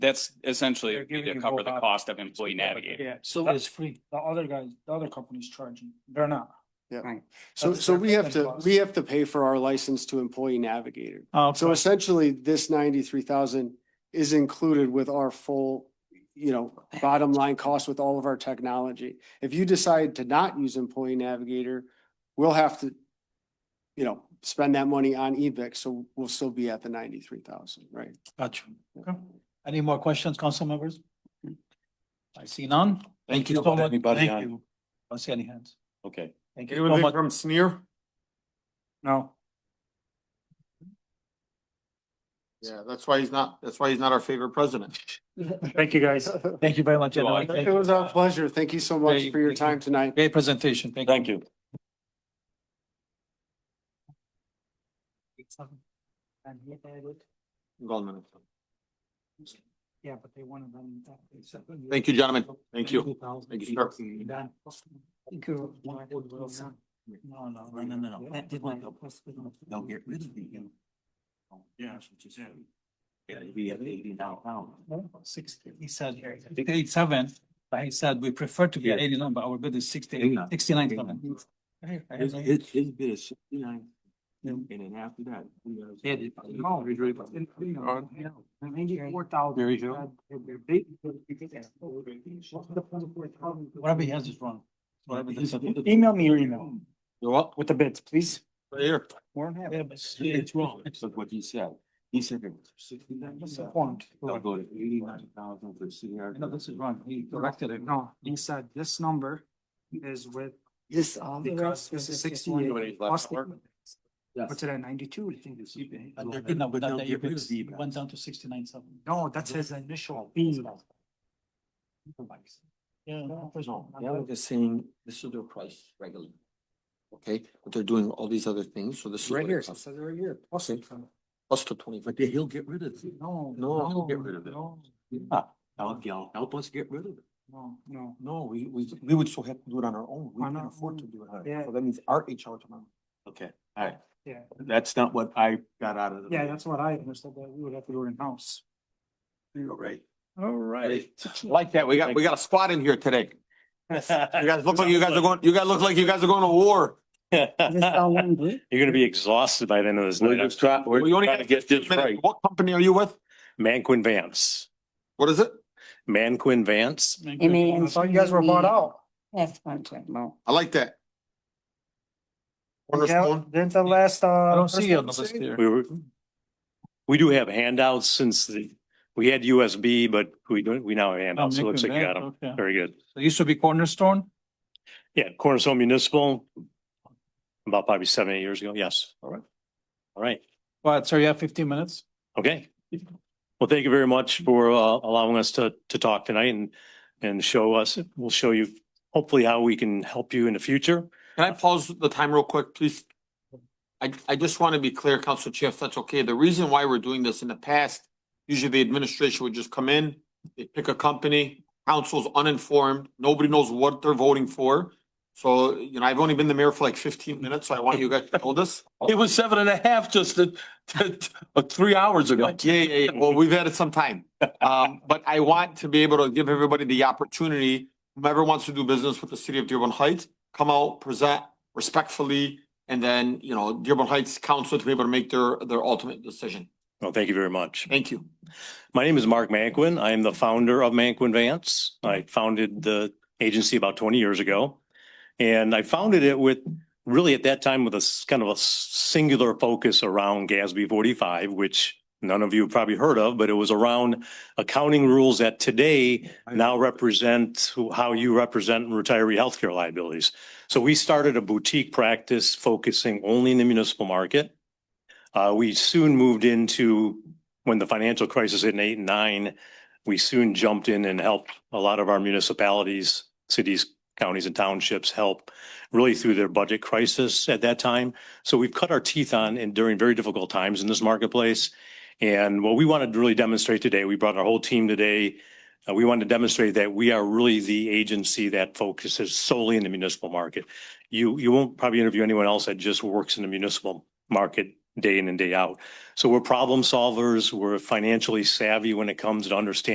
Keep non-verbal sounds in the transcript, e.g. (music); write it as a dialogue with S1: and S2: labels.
S1: That's essentially
S2: They're giving
S1: to
S2: you
S1: cover
S2: both
S1: the
S2: options.
S1: cost of employee navigator.
S2: Yeah,
S3: So
S2: That-
S3: it's free.
S2: the other guys, the other companies charging, they're not.
S4: So,
S2: That's
S4: so
S2: their
S4: we have to,
S2: business
S4: we have to pay for our license to employee navigator.
S2: Oh,
S4: So essentially, this ninety-three thousand is included with our full, you know, bottom line cost with all of our technology. If you decide to not use employee navigator, we'll have to, you know, spend that money on eBix, so we'll still be at the ninety-three thousand, right?
S3: Gotcha. Any more questions, council members? I see none. Thank you so
S5: Not
S3: much.
S5: anybody
S3: Thank
S5: on-
S3: you. Don't see any hands.
S5: Okay,
S3: Thank you so
S6: Anyone
S3: much.
S6: from Sneer?
S2: No,
S6: Yeah, that's why he's not, that's why he's not our favorite president.
S2: thank you,
S3: (laughs)
S2: guys.
S3: Thank you very much.
S1: You're
S3: everyone.
S1: welcome.
S3: Thank
S4: It
S3: you.
S4: was our pleasure. Thank you so much
S3: Great,
S4: for your
S3: thank you.
S4: time tonight.
S3: Great presentation. Thank you.
S5: thank you.
S6: Hold on a minute.
S2: Yeah, but they wanted them.
S6: Thank you, gentlemen. Thank you. Thank you, sir.
S3: Thank you. No, no, no, no, no, no. That did not help. They'll get rid of you.
S5: Oh,
S3: Yeah. Yeah, we have eighty now. Sixty, he said, eighty-seven, but he said we prefer to be
S5: Yeah.
S3: eighty-nine, but our bid is sixty, sixty-nine seven.
S5: His, his, his bid is sixty-nine,
S3: Yeah.
S5: and then after that.
S2: Ninety-four thousand.
S5: There you go.
S3: Whatever he has is wrong. Whatever this is.
S2: Email me your email
S6: You're up,
S2: with the bids, please.
S6: right here.
S2: Warren have
S3: Yeah,
S2: it.
S3: but It's wrong.
S5: Look what he said, he said it was sixty-nine.
S2: Disappointed.
S5: They'll go to eighty-nine thousand for CR.
S3: No, this is wrong. He corrected it.
S2: No, he said this number is with,
S4: This, um,
S2: because this is sixty-eight. plus the-
S5: Yes.
S2: What's it at ninety-two?
S3: But they're good now, but
S5: They'll
S3: not that,
S5: get
S3: it
S5: rid of the-
S3: went down to sixty-nine seven.
S2: No, that's his initial fee.
S3: Yeah.
S5: No, they were just saying, this is their price regularly.
S6: Okay, but they're doing all these other things, so this is.
S5: Right
S6: what it
S5: here, it
S6: costs.
S5: says right here.
S6: Plus plus the twenty,
S5: But then he'll get rid of it.
S2: No.
S5: No, I'll get rid of it.
S2: No,
S5: Yeah, help, help us get rid of it.
S2: no, no.
S6: no, we, we, we would still have to do it on our own. We
S2: On
S6: can
S2: our
S6: afford to
S2: own,
S6: do it on our
S2: yeah.
S6: own. So that means our HR tomorrow.
S5: Okay, all right,
S2: Yeah,
S5: that's not what I got out of it.
S2: yeah, that's what I understood, that we would have to do it in-house.
S5: You're right.
S3: All right.
S6: Like that, we got, we got a squad in here today. You guys look like you guys are going, you guys look like you guys are going to war.
S2: (laughs)
S7: You're gonna be exhausted by the end of this
S5: We're
S7: night.
S5: just trying, we're
S6: Well, you only
S7: trying to
S6: got
S7: get
S6: 15
S7: this
S6: minutes.
S7: right.
S6: What company are you with?
S7: Manquin Vance,
S6: What is it?
S7: Manquin Vance.
S2: I thought you guys were bought out.
S8: That's one time more.
S6: I like that. Cornerstone.
S2: Didn't the last, uh.
S3: I don't see you on the list here.
S7: We were, we do have handouts since the, we had USB, but we don't, we now have
S3: Oh,
S7: handouts. So it looks like you got them.
S3: Macon Vance, okay.
S7: Very good.
S3: So it used to be Cornerstone.
S7: Yeah, Cornerstone Municipal, about probably seven, eight years ago. Yes. All right. All right.
S3: Well, so you have fifteen minutes.
S7: Okay. Well, thank you very much for uh, allowing us to, to talk tonight and, and show us, we'll show you hopefully how we can help you in the future.
S6: Can I pause the time real quick, please? I, I just want to be clear, Council Chair, if that's okay. The reason why we're doing this in the past, usually the administration would just come in, they pick a company, council's uninformed, nobody knows what they're voting for. So, you know, I've only been the mayor for like fifteen minutes, so I want you guys to know this.
S5: It was seven and a half just
S6: (laughs)
S5: uh, uh, three hours ago.
S6: Yeah, yeah, yeah. Well, we've had it some time. Um, but I want to be able to give everybody the opportunity, whomever wants to do business with the city of Dearborn Heights, come out, present respectfully, and then, you know, Dearborn Heights Council to be able to make their, their ultimate decision.
S7: Well, thank you very much.
S6: Thank you.
S7: My name is Mark Manquin. I am the founder of Manquin Vance. I founded the agency about twenty years ago. And I founded it with, really at that time with a s- kind of a s- singular focus around GASB forty-five, which none of you have probably heard of, but it was around accounting rules that today now represent who- how you represent retiree healthcare liabilities. So we started a boutique practice focusing only in the municipal market. Uh, we soon moved into when the financial crisis hit in eight and nine, we soon jumped in and helped a lot of our municipalities, cities, counties and townships help really through their budget crisis at that time. So we've cut our teeth on and during very difficult times in this marketplace. And what we wanted to really demonstrate today, we brought our whole team today. uh, we wanted to demonstrate that we are really the agency that focuses solely in the municipal market. You, you won't probably interview anyone else that just works in the municipal market day in and day out. So we're problem solvers. We're financially savvy when it comes to understanding